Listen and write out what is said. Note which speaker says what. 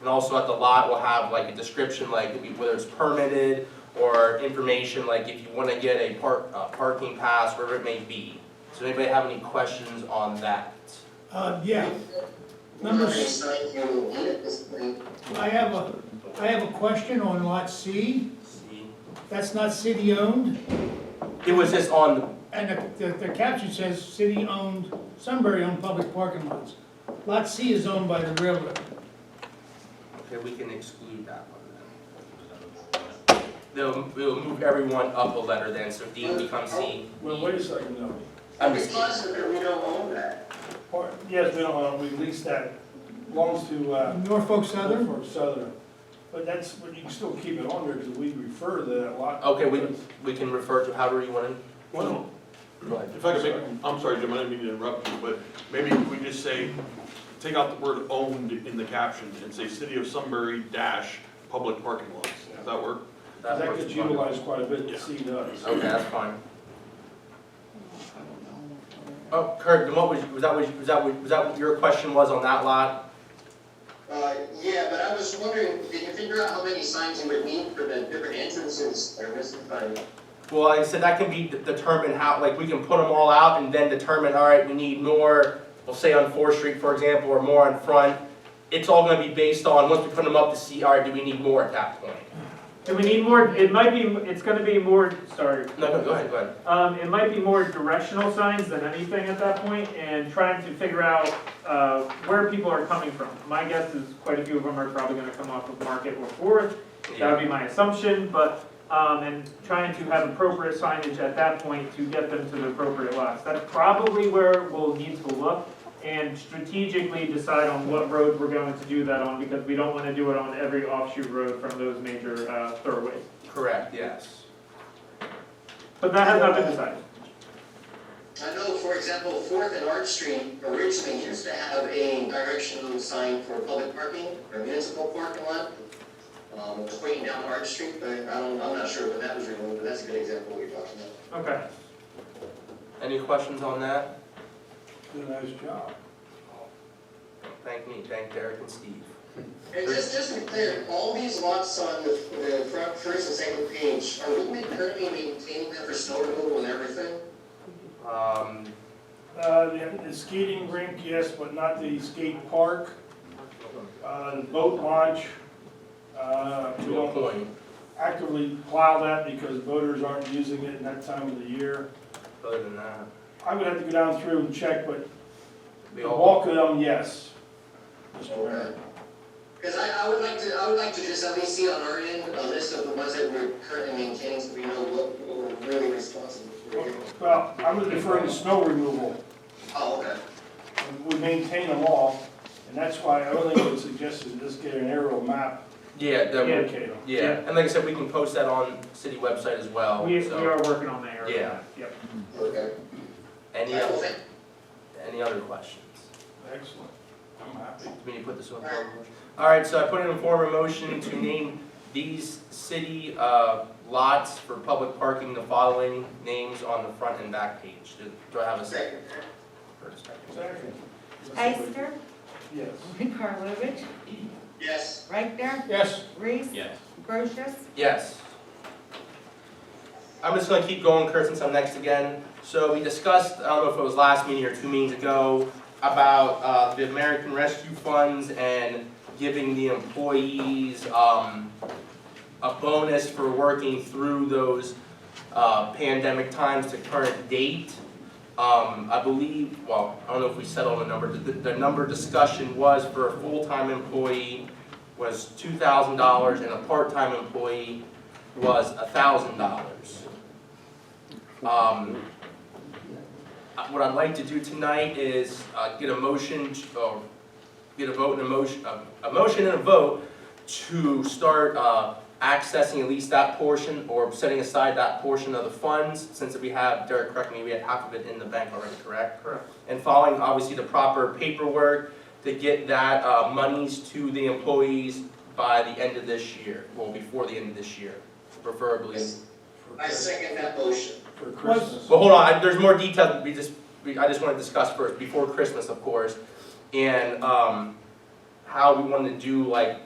Speaker 1: And also at the lot, we'll have like a description, like whether it's permitted or information, like if you wanna get a park, uh, parking pass, wherever it may be. So anybody have any questions on that?
Speaker 2: Uh, yeah, number, s- I have a, I have a question on lot C,
Speaker 1: See?
Speaker 2: that's not city-owned,
Speaker 1: It was just on,
Speaker 2: and the, the- the caption says city-owned, Sunbury-owned public parking lots. Lot C is owned by the railroad.
Speaker 1: okay, we can exclude that one then. They'll, we'll move everyone up a letter then, so D becomes C.
Speaker 3: Well, wait a second now.
Speaker 1: I'm
Speaker 4: It's
Speaker 1: just,
Speaker 4: possible that we don't own that.
Speaker 3: Part- Yes, we don't, own, we lease that, belongs to, uh,
Speaker 2: Norfolk Southern,
Speaker 3: Norfolk Southern. But that's, but you can still keep it on there because we refer to that lot.
Speaker 1: okay, we, we can refer to however you wanna,
Speaker 5: Well,
Speaker 1: go ahead.
Speaker 5: if I could make, I'm sorry, Jim, I didn't mean to interrupt you, but maybe we just say, take out the word owned in the caption and say city of Sunbury dash public parking lots. Does that work?
Speaker 3: 'Cause That
Speaker 1: works
Speaker 3: gets
Speaker 1: fine.
Speaker 3: utilized quite a bit,
Speaker 5: Yeah.
Speaker 3: the C does.
Speaker 1: Okay, that's fine. Oh, Kurt, then what was, was that, what you- was that, what- was that what your question was on that lot?
Speaker 4: Uh, yeah, but I was wondering, did you figure out how many signs you would need for the different entrances or was it by?
Speaker 1: Well, like I said, that can be de- determined how, like, we can put them all out and then determine, all right, we need more, we'll say on Fourth Street, for example, or more on Front. It's all gonna be based on, once we put them up to see, all right, do we need more at that point?
Speaker 6: Do we need more, it might be, it's gonna be more, sorry,
Speaker 1: No, no, go ahead, go ahead.
Speaker 6: um, it might be more directional signs than anything at that point, and trying to figure out, uh, where people are coming from. My guess is quite a few of them are probably gonna come off of Market or Fourth, that would be my assumption, but, um, and trying to have appropriate signage at that point to get them to the appropriate lots. That's probably where we'll need to look, and strategically decide on what road we're going to do that on, because we don't wanna do it on every offshoot road from those major, uh, thoroughways.
Speaker 1: Correct, yes.
Speaker 6: But that has not been decided.
Speaker 4: I know, for example, Fourth and Arch Street originally used to have a directional sign for public parking or municipal parking lot. Um, it was pointing down Arch Street, but I don't, I'm not sure when that was removed, but that's a good example of what you're talking about.
Speaker 6: Okay.
Speaker 1: Any questions on that?
Speaker 3: Did a nice job.
Speaker 1: Thank me, thank Derek and Steve.
Speaker 4: And just, just to be clear, all these lots on the, the front, first and second page, are we currently maintaining them for snow removal and everything?
Speaker 1: Um,
Speaker 3: Uh, the- the skating rink, yes, but not the skate park, uh, the boat launch. Uh, we
Speaker 1: to a
Speaker 3: don't
Speaker 1: point,
Speaker 3: actively plow that because boaters aren't using it in that time of the year.
Speaker 1: other than that,
Speaker 3: I would have to go down through and check, but
Speaker 1: we
Speaker 3: the
Speaker 1: all.
Speaker 3: bulk of them, yes. Mr. Mayor.
Speaker 4: Because I, I would like to, I would like to just at least see on our end, a list of the ones that we're currently maintaining, so we know what, what we're really responsible for.
Speaker 3: Well, I'm referring to snow removal.
Speaker 4: Oh, okay.
Speaker 3: We maintain them all, and that's why I only would suggest is just get an aerial map
Speaker 1: Yeah, that
Speaker 3: and
Speaker 1: would,
Speaker 3: locate them.
Speaker 1: yeah, and like I said, we can post that on city website as well,
Speaker 6: We, we
Speaker 1: Oh, so.
Speaker 6: are working on that area.
Speaker 1: Yeah.
Speaker 6: Yep.
Speaker 4: Okay.
Speaker 1: Any,
Speaker 4: I will
Speaker 1: oth-
Speaker 4: think-
Speaker 1: any other questions?
Speaker 3: Excellent. I'm happy.
Speaker 1: Do we need to put this on? Alright, so I put in a form of motion to name these city, uh, lots for public parking, the following names on the front and back page. Do- Do I have a second? First, second.
Speaker 3: Second.
Speaker 7: Ister,
Speaker 3: Yes.
Speaker 7: Karlovic,
Speaker 4: Yes,
Speaker 7: Reichtner,
Speaker 3: Yes.
Speaker 7: Reese. Brochus,
Speaker 1: Yes. I'm just gonna keep going, Kurt, since I'm next again. So we discussed, I don't know if it was last meeting or two meetings ago, about, uh, the American Rescue Funds and giving the employees, um, a bonus for working through those, uh, pandemic times to current date. Um, I believe, well, I don't know if we settled on a number, the, the number discussion was for a full-time employee, was two thousand dollars and a part-time employee was a thousand dollars. Um, uh, what I'd like to do tonight is, uh, get a motion, to- or get a vote and a motion, a, a motion and a vote to start, uh, accessing at least that portion or setting aside that portion of the funds, since we have, Derek, correct me, we have half of it in the bank already, correct?
Speaker 6: Correct.
Speaker 1: And following, obviously, the proper paperwork to get that uh, monies to the employees by the end of this year, well, before the end of this year, preferably.
Speaker 4: I second that motion.
Speaker 3: For Christmas.
Speaker 1: But hold on, I- there's more detail that we just, we- I just want to discuss first, before Christmas, of course, and um, how we want to do like